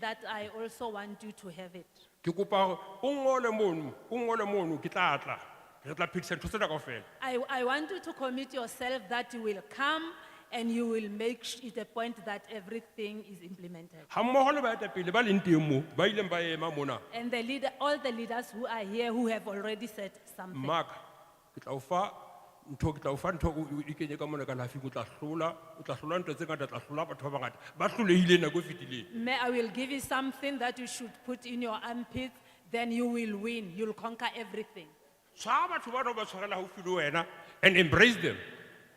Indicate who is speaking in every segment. Speaker 1: that I also want you to have it.
Speaker 2: ke kopa gore o ngole mono o ngole mono ke tla tla re tla phedisa ntho tsena kaofela
Speaker 1: I, I want you to commit yourself that you will come and you will make sh- it a point that everything is implemented.
Speaker 2: ga mmogo le baetapele ba leng teng mo ba ileng ba ema mona
Speaker 1: And the leader, all the leaders who are here who have already said something.
Speaker 2: mmaka ke tla o fa ntho ke tla o fa ntho e o- o ikenye ka mona ka lafing o tla tlola o tla tlola ntho tse ngata o tla tlola batho ba bangata ba tlolehileng nako e fetileng
Speaker 1: May, I will give you something that you should put in your armpits, then you will win. You'll conquer everything.
Speaker 2: tshwara batho ba no ba tshwarela gaufi le wena and embrace them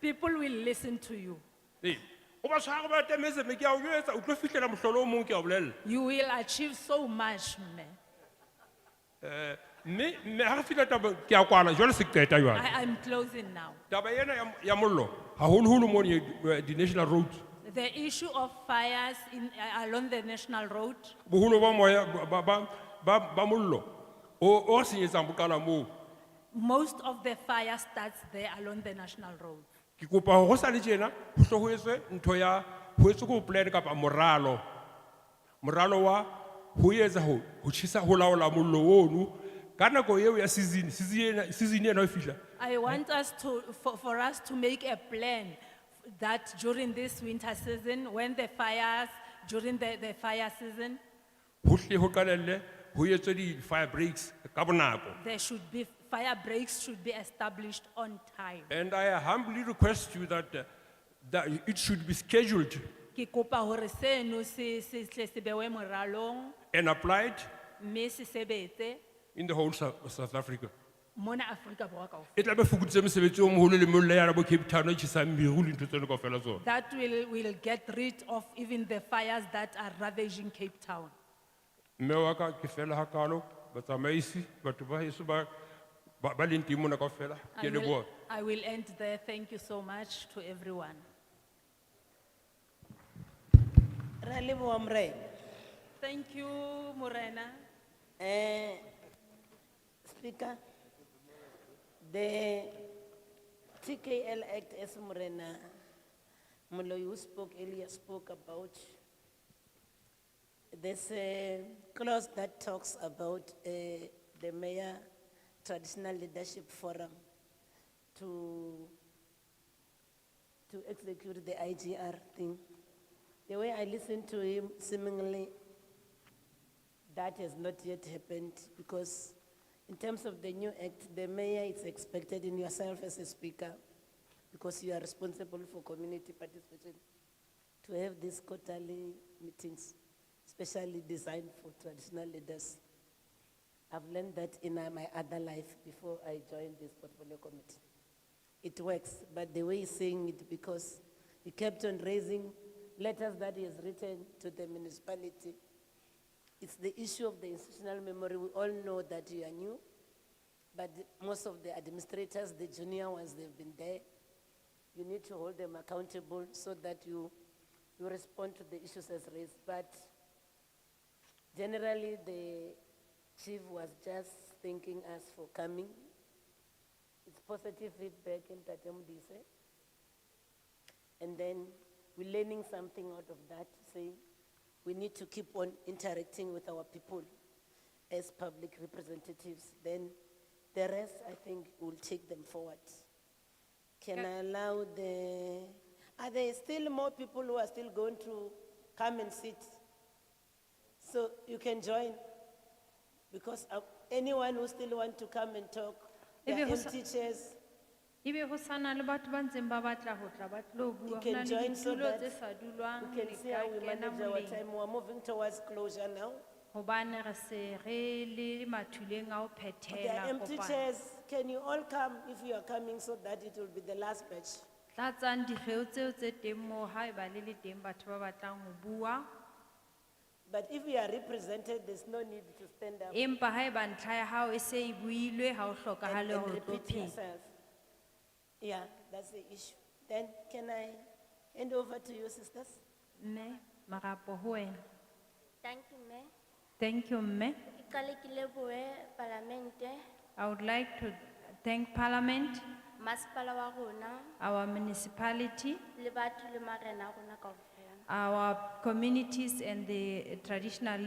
Speaker 1: People will listen to you.
Speaker 2: Ee. o ba tshwara ba temeseme ke a o jetsa o tlo fitlhela motlholo o mongwe ke a o bolelela
Speaker 1: You will achieve so much, man.
Speaker 2: mme mme ga re fitlha taba ke a kwana jalo se ke qeta jale
Speaker 1: I, I'm closing now.
Speaker 2: taba ena ya- ya mollo gaholoholo mo di-national roads
Speaker 1: The issue of fires in, uh, along the national road,
Speaker 2: boholo ba moya ba- ba- ba ba mollo o o re senyetsang bokala moo
Speaker 1: most of the fire starts there along the national road.
Speaker 2: ke kopa gore go sa le tjena go tle ho etswe ntho ya ho etswe ko plan kapa moralo moralo wa ho etsa ho ho tjhesa ho laola mollo ono ka nako eo ya season season ena- season ena e fihla
Speaker 1: I want us to, for, for us to make a plan that during this winter season, when the fires, during the, the fire season,
Speaker 2: ho tle ho qalelle ho etswe di-fire breaks ka bonako
Speaker 1: there should be, fire breaks should be established on time.
Speaker 2: and i humbly request you that, uh, that it should be scheduled
Speaker 1: Ki kopa hore seno se, se, tle se bewe moralong,
Speaker 2: and applied
Speaker 1: mme se sebetse
Speaker 2: in the whole South, South Africa.
Speaker 1: mona Afrika Borwa kaofela.
Speaker 2: E tla be fokoditse mosebetsi o moholo le mollo ya la bo Cape Town e tjhesang meru le ntho tseno kaofela tsona.
Speaker 1: That will, will get rid of even the fires that are ravaging Cape Town.
Speaker 2: Mme wa ka ke fela hakalo, batsamaisi, batho ba heso ba- ba- ba leng teng mona kaofela,
Speaker 1: I
Speaker 2: ke a
Speaker 1: will-
Speaker 2: leboha.
Speaker 1: I will end there. Thank you so much to everyone.
Speaker 3: Ra leboha morena.
Speaker 1: Thank you, Morena.
Speaker 3: Eh, Speaker, the TKL Act as Morena, Moloi who spoke earlier spoke about, there's a clause that talks about eh, the mayor traditional leadership forum to, to execute the IGR thing. The way I listened to him seemingly that has not yet happened because in terms of the new act, the mayor is expected in yourself as a speaker because you are responsible for community participation to have these quarterly meetings, specially designed for traditional leaders. I've learned that in uh, my other life before I joined this portfolio committee. It works, but the way he's saying it, because he kept on raising letters that he has written to the municipality, it's the issue of the institutional memory. We all know that you are new, but most of the administrators, the junior ones, they've been there. You need to hold them accountable so that you, you respond to the issues as raised. But generally, the chief was just thanking us for coming. It's positive feedback in Tatemudise. And then we're learning something out of that, say, we need to keep on interacting with our people as public representatives. Then the rest, I think, will take them forward. Can I allow the, are there still more people who are still going to come and sit? So you can join, because uh, anyone who still want to come and talk, there
Speaker 4: Ebe
Speaker 3: are
Speaker 4: ho sa-
Speaker 3: empty chairs.
Speaker 4: ebe E ho sana le batho ba ntseng ba batla ho tla ba tlo bua
Speaker 3: You
Speaker 4: ho na
Speaker 3: can
Speaker 4: le
Speaker 3: join so
Speaker 4: ditulo
Speaker 3: that
Speaker 4: tse sa dulwang
Speaker 3: we
Speaker 4: le
Speaker 3: can see
Speaker 4: ka
Speaker 3: how we
Speaker 4: kena
Speaker 3: manage our
Speaker 4: moleng
Speaker 3: time. We're moving towards closure now.
Speaker 4: Eh, hobane re se re le mathuleng a ho
Speaker 3: There are
Speaker 4: phethela
Speaker 3: empty
Speaker 4: kopano
Speaker 3: chairs. Can you all come if you are coming so that it will be the last batch?
Speaker 4: tlatsang dikgeo tseo tse teng moo ha eba le le teng batho ba batlang ho bua
Speaker 3: But if we are represented, there's no need to stand up and-
Speaker 4: empa ha eba ntlha ya hao e se e builwe ha o hlokahale
Speaker 3: and
Speaker 4: hore o tlo
Speaker 3: repeat
Speaker 4: phela
Speaker 3: yourself. Yeah, that's the issue. Then can I hand over to you, sisters?
Speaker 4: mme marapo ho wena
Speaker 5: Thank you, Mayor.
Speaker 4: thank you mme
Speaker 5: Ke qale ke lebohe palamente,
Speaker 4: i would like to thank parliament
Speaker 5: masepala wa rona,
Speaker 4: our municipality
Speaker 5: le batho le marena a rona kaofela.
Speaker 4: our communities and the traditional